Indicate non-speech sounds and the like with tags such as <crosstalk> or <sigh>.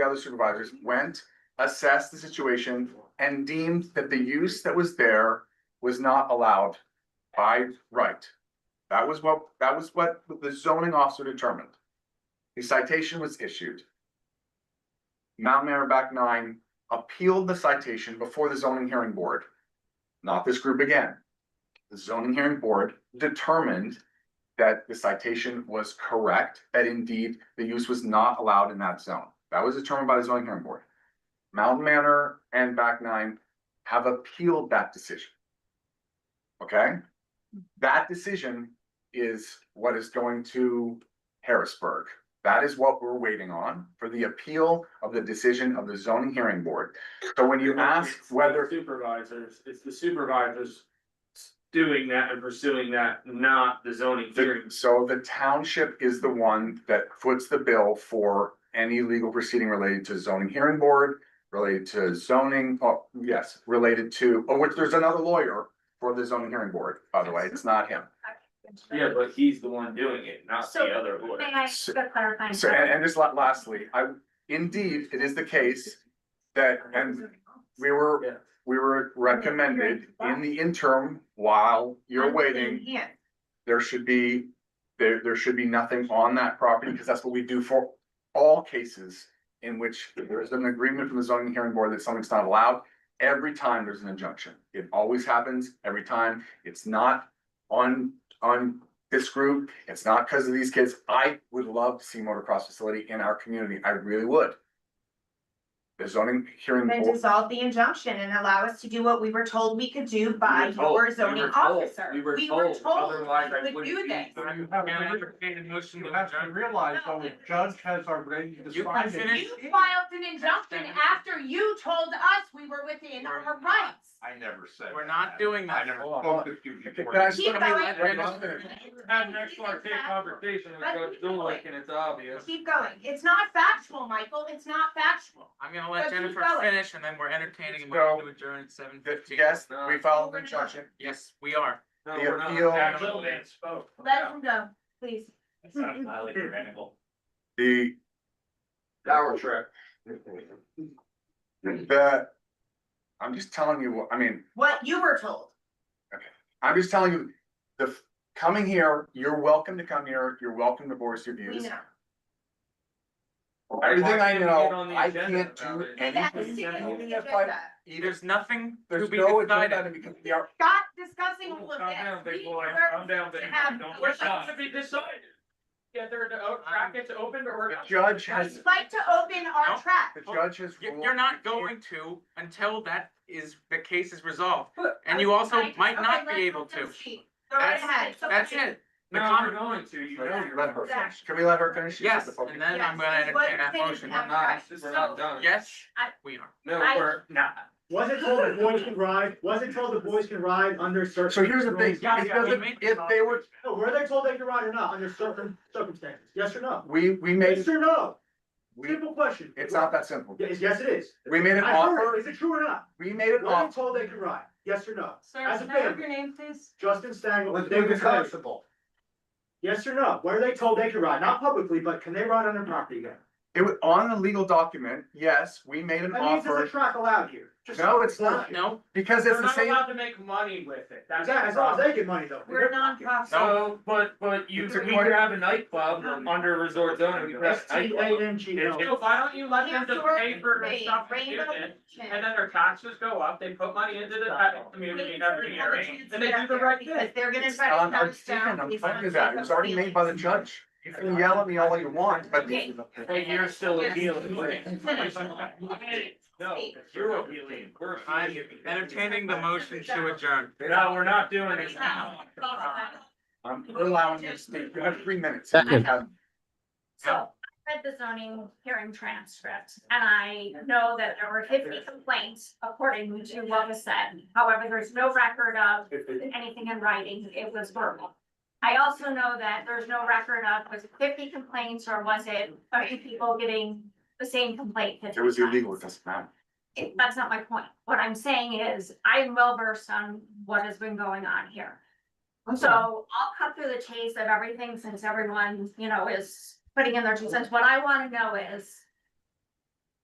other supervisors went, assessed the situation and deemed that the use that was there was not allowed by right. That was what, that was what the zoning officer determined. The citation was issued. Mount Merrimack nine appealed the citation before the zoning hearing board. Not this group again. The zoning hearing board determined that the citation was correct, that indeed the use was not allowed in that zone. That was determined by the zoning hearing board. Mountain Manor and Back Nine have appealed that decision. Okay? That decision is what is going to Harrisburg. That is what we're waiting on for the appeal of the decision of the zoning hearing board. So when you ask It's the whether Supervisors, it's the supervisors doing that and pursuing that, not the zoning The- hearings. So the township is the one that foots the bill for any legal proceeding related to zoning hearing board, related to zoning, oh, yes, related to, oh, which there's another lawyer for the zoning hearing board, by the way, it's not him. Yeah, but he's the one doing it, not the So, other May lawyer. I ask a clarifying? So, and, and just la- lastly, I, indeed, it is the case that, and we were, Yeah. we were recommended in the interim while you're waiting. Here, there should be, there, there should be nothing on that property, because that's what we do for all cases in which there is an agreement from the zoning hearing board that something's not allowed. Every time there's an injunction, it always happens, every time, it's not on, on this group, it's not because of these kids. I would love to see motocross facility in our community, I really would. The zoning hearing then board, dissolve the injunction and allow us to do what we were told we could do by We were told- your we zoning were told- officer. We were told told, otherwise I we would do wouldn't. this. be- You have to- You have to realize though, the judge has already You can decided. finish. You filed an injunction after you told us we were within our rights. I never said. We're not doing that. I never spoke to you before. Can I just- Keep going. Had an excellent conversation with Judge Dulick and it's obvious. Keep going. It's not factual, Michael. It's not factual. I'm gonna let But you Jennifer fell it. finish and then we're entertaining a So- motion to adjourn at seven that- fifteen. yes, we filed an injunction, Yes, we are. No, The we're not. appeal- Actually, they spoke. <laughs> Let him go, please. It's not highly tyrannical. the, Power trip. the, I'm just telling you, what I mean, What you were told. I'm just telling you, the, f- coming here, you're welcome to come here, you're welcome to voice your We views. know. Everything Why I didn't we get on know, the I agenda can't about do it? We've asked to anything. see if Even we if did I- that. even- There's nothing to There's be no agenda decided. because we are, Stop discussing all of Oh, Calm down, this. big We boy. were Calm down, to big boy. have- Don't we're push supposed on. Um, to be decided. Yeah, they're the brackets open or the judge has, We'd like to open our No. trap. the judge has You- ruled. You're not going to until that is, the case is resolved. But- And you also Okay, might not let's be able let them to. speak. Go right ahead. That's, It's that's okay. it. The No, con- we're going to, you know. you're Let her going to. finish. Can we let her finish? She's Yes, the focus. and then I'm Yes, gonna it's what entertain that you're motion. saying. We're not, we're not done. Yes, I- we are. No, I- we're not. Was it told the boys can ride, was it told the boys can ride under certain? So here's the thing, it Yeah, yeah, we doesn't, made- if they were, No, Were they told they can ride or not, under certain circumstances, yes or no? we, we made, Yes or no? we, Simple question. it's not that simple. Yes, yes it is. We made an I heard, it. offer, is it true or not? we made an Were they offer. told they can ride, yes or no? Sir, As a can I have family. your name, please? Justin Stangle, With David the Tyler, constable. yes or no? Were they told they can ride, not publicly, but can they ride on their property again? It was on the legal document, yes, we made an That means there's a offer, track allowed here. Just- No, it's not. No, because it's They're the not same, allowed to make money with it. That's Exactly, the as long as problem. they get money though. We're non-profit. So, but, but you, It's a we quite- could have a nightclub under resort zone. we could have a T nightclub. A N G If- L. if- Why don't you let them just pay for their Rainbow stuff and Rainbow dividends, and then Kitchen. their taxes go up, they put money into the uh, community and every year, and they do the right thing. Because they're gonna it's try to on come our down. decision, I'm based telling you on that, it was already made by the judge. You can yell at me all you want, but Okay. Hey, you're still appealing. Finish. <laughs> No, you're appealing. We're I'm appealing. entertaining the motion to adjourn. No, we're not doing it. I'm allowing you to speak, you have three minutes. Second. Have- So I read the zoning hearing transcript and I know that there were fifty complaints according to what was said. However, there's no record of anything in writing. It was verbal. I also know that there's no record of was it fifty complaints or was it thirty people getting the same complaint? It 50 was illegal, times? it doesn't matter. it- that's not my point. What I'm saying is, I'm well versed on what has been going on here. So I'll cut through the chase of everything since everyone, you know, is putting in their two cents. What I wanna know is,